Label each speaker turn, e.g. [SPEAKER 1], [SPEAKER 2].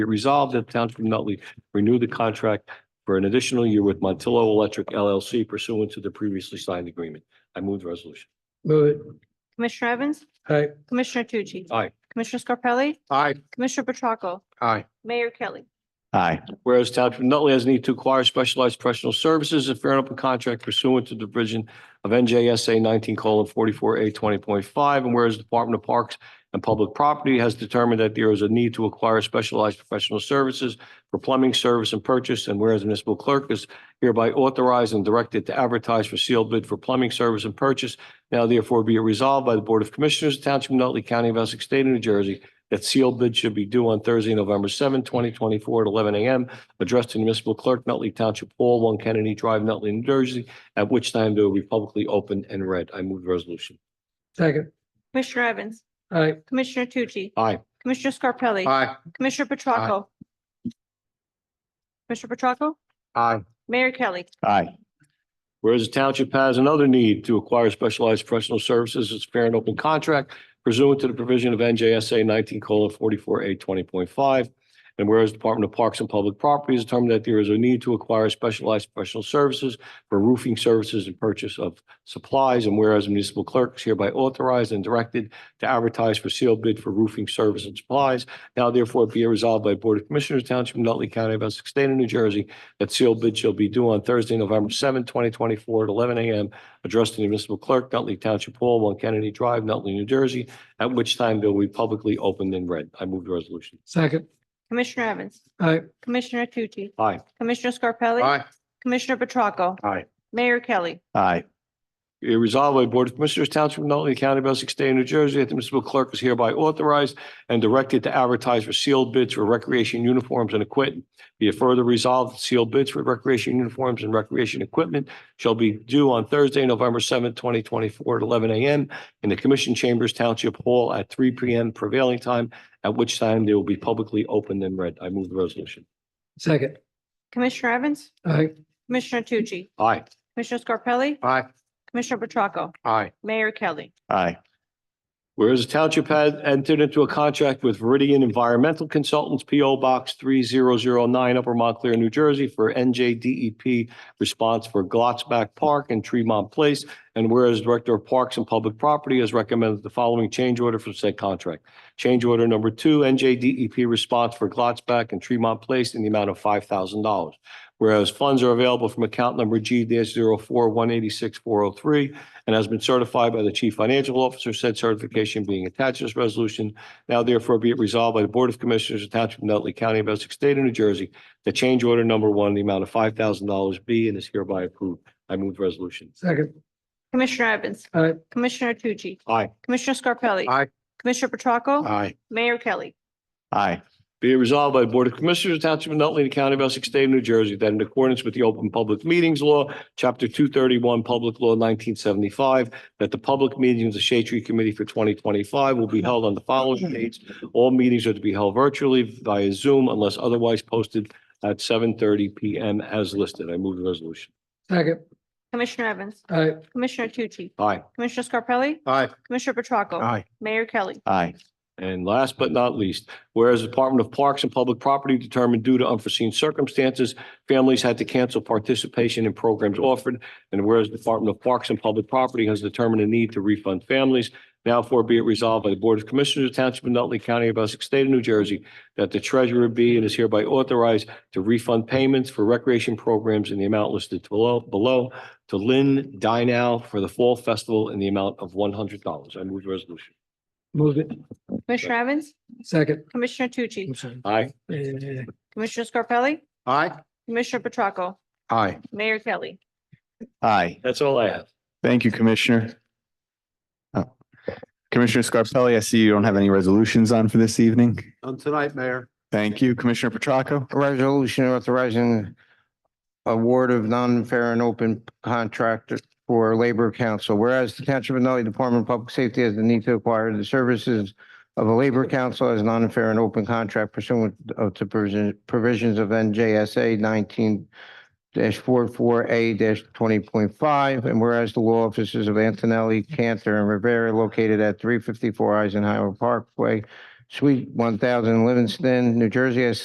[SPEAKER 1] Be resolved that the Township of Nutley renew the contract for an additional year with Montillo Electric LLC pursuant to the previously signed agreement. I move the resolution.
[SPEAKER 2] Move it.
[SPEAKER 3] Commissioner Evans?
[SPEAKER 2] Aye.
[SPEAKER 3] Commissioner Tucci?
[SPEAKER 1] Aye.
[SPEAKER 3] Commissioner Scarpelli?
[SPEAKER 2] Aye.
[SPEAKER 3] Commissioner Petracca?
[SPEAKER 2] Aye.
[SPEAKER 3] Mayor Kelly?
[SPEAKER 4] aye,
[SPEAKER 1] Whereas Township of Nutley has need to acquire specialized professional services and fair and open contract pursuant to the provision of NJSA nineteen forty-four A twenty point five, and whereas the Department of Parks and Public Property has determined that there is a need to acquire specialized professional services for plumbing service and purchase, and whereas the municipal clerk is hereby authorized and directed to advertise for sealed bid for plumbing service and purchase, now therefore be it resolved by the Board of Commissioners, of the Township of Nutley, County of Essex, State of New Jersey, that sealed bid should be due on Thursday, November 7, twenty twenty-four at eleven AM addressed to the municipal clerk, Nutley Township Hall, One Kennedy Drive, Nutley, New Jersey, at which time they will be publicly open and read. I move the resolution.
[SPEAKER 2] Second.
[SPEAKER 3] Commissioner Evans?
[SPEAKER 2] Aye.
[SPEAKER 3] Commissioner Tucci?
[SPEAKER 1] Aye.
[SPEAKER 3] Commissioner Scarpelli?
[SPEAKER 2] Aye.
[SPEAKER 3] Commissioner Petracca? Commissioner Petracca?
[SPEAKER 2] Aye.
[SPEAKER 3] Mayor Kelly?
[SPEAKER 4] aye,
[SPEAKER 1] Whereas the township has another need to acquire specialized professional services, it's fair and open contract pursuant to the provision of NJSA nineteen forty-four A twenty point five. And whereas Department of Parks and Public Property has determined that there is a need to acquire specialized professional services for roofing services and purchase of supplies. And whereas municipal clerk is hereby authorized and directed to advertise for sealed bid for roofing service and supplies. Now therefore be it resolved by Board of Commissioners, Township of Nutley County of Essex, State of New Jersey, that sealed bid shall be due on Thursday, November seventh, twenty twenty-four at eleven AM, addressed to the municipal clerk, Nutley Township Hall, One Kennedy Drive, Nutley, New Jersey, at which time they will be publicly opened and read. I move the resolution.
[SPEAKER 2] Second.
[SPEAKER 3] Commissioner Evans?
[SPEAKER 2] Aye.
[SPEAKER 3] Commissioner Tucci?
[SPEAKER 1] Aye.
[SPEAKER 3] Commissioner Scarpelli? Commissioner Petracca?
[SPEAKER 1] Aye.
[SPEAKER 3] Mayor Kelly?
[SPEAKER 4] aye,
[SPEAKER 1] Be resolved by the Board of Commissioners, Township of Nutley County, of Essex State, of New Jersey, that the municipal clerk is hereby authorized and directed to advertise for sealed bids for recreation uniforms and equipment. Be it further resolved, that sealed bids for recreation uniforms and recreation equipment shall be due on Thursday, November seventh, twenty twenty-four, at eleven AM in the Commission Chambers Township Hall at three PM prevailing time, at which time they will be publicly opened and read. I move the resolution.
[SPEAKER 2] Second.
[SPEAKER 3] Commissioner Evans?
[SPEAKER 2] Aye.
[SPEAKER 3] Commissioner Tucci?
[SPEAKER 1] Aye.
[SPEAKER 3] Commissioner Scarpelli?
[SPEAKER 2] Aye.
[SPEAKER 3] Commissioner Petracca?
[SPEAKER 2] Aye.
[SPEAKER 3] Mayor Kelly?
[SPEAKER 4] aye,
[SPEAKER 1] Whereas the township had entered into a contract with Viridian Environmental Consultants, P O Box three zero zero nine, Upper Montclair, New Jersey, for N J D E P response for Glotzback Park and Tremont Place. And whereas Director of Parks and Public Property has recommended the following change order for said contract. Change order number two, N J D E P response for Glotzback and Tremont Place in the amount of five thousand dollars. Whereas funds are available from account number G dash zero four one eighty-six four oh three and has been certified by the Chief Financial Officer, said certification being attached to this resolution. Now therefore be it resolved by the Board of Commissioners of the Township of Nutley County of Essex State of New Jersey that change order number one, in the amount of five thousand dollars be and is hereby approved. I move the resolution.
[SPEAKER 2] Second.
[SPEAKER 3] Commissioner Evans?
[SPEAKER 2] Aye.
[SPEAKER 3] Commissioner Tucci?
[SPEAKER 1] Aye.
[SPEAKER 3] Commissioner Scarpelli?
[SPEAKER 2] Aye.
[SPEAKER 3] Commissioner Petracca?
[SPEAKER 2] Aye.
[SPEAKER 3] Mayor Kelly?
[SPEAKER 4] aye,
[SPEAKER 1] Be it resolved by the Board of Commissioners of the Township of Nutley, the County of Essex, State of New Jersey, that in accordance with the Open Public Meetings Law, Chapter two thirty-one, Public Law nineteen seventy-five, that the public meeting of the Shade Tree Committee for twenty twenty-five will be held on the following dates. All meetings are to be held virtually via Zoom unless otherwise posted at seven thirty PM as listed. I move the resolution.
[SPEAKER 2] Second.
[SPEAKER 3] Commissioner Evans?
[SPEAKER 2] Aye.
[SPEAKER 3] Commissioner Tucci?
[SPEAKER 1] Aye.
[SPEAKER 3] Commissioner Scarpelli?
[SPEAKER 2] Aye.
[SPEAKER 3] Commissioner Petracca?
[SPEAKER 2] Aye.
[SPEAKER 3] Mayor Kelly?
[SPEAKER 4] aye,
[SPEAKER 1] And last but not least, whereas the Department of Parks and Public Property determined due to unforeseen circumstances, families had to cancel participation in programs offered, and whereas the Department of Parks and Public Property has determined a need to refund families, now for be it resolved by the Board of Commissioners of the Township of Nutley County of Essex State of New Jersey that the treasurer be and is hereby authorized to refund payments for recreation programs in the amount listed below, below to Lynn Dinow for the Fall Festival in the amount of one hundred dollars. I move the resolution.
[SPEAKER 2] Move it.
[SPEAKER 3] Commissioner Evans?
[SPEAKER 2] Second.
[SPEAKER 3] Commissioner Tucci?
[SPEAKER 2] I'm sorry.
[SPEAKER 1] Aye.
[SPEAKER 2] Eh,
[SPEAKER 3] Commissioner Scarpelli?
[SPEAKER 2] Aye.
[SPEAKER 3] Commissioner Petracca?
[SPEAKER 2] Aye.
[SPEAKER 3] Mayor Kelly?
[SPEAKER 4] aye.
[SPEAKER 1] That's all I have.
[SPEAKER 4] Thank you, Commissioner. Uh, Commissioner Scarpelli, I see you don't have any resolutions on for this evening.
[SPEAKER 5] On tonight, Mayor.
[SPEAKER 4] Thank you, Commissioner Petracca.
[SPEAKER 5] Resolution authorizing award of non-fair and open contract for Labor Council. Whereas the Township of Nutley Department of Public Safety has the need to acquire the services of a Labor Council as non-fair and open contract pursuant of to provision- provisions of NJSA nineteen dash A twenty point five. And whereas the law offices of Antonelli, Cantor, and Rivera located at three fifty-four Eisenhower Parkway, Suite one thousand Livingston, New Jersey, has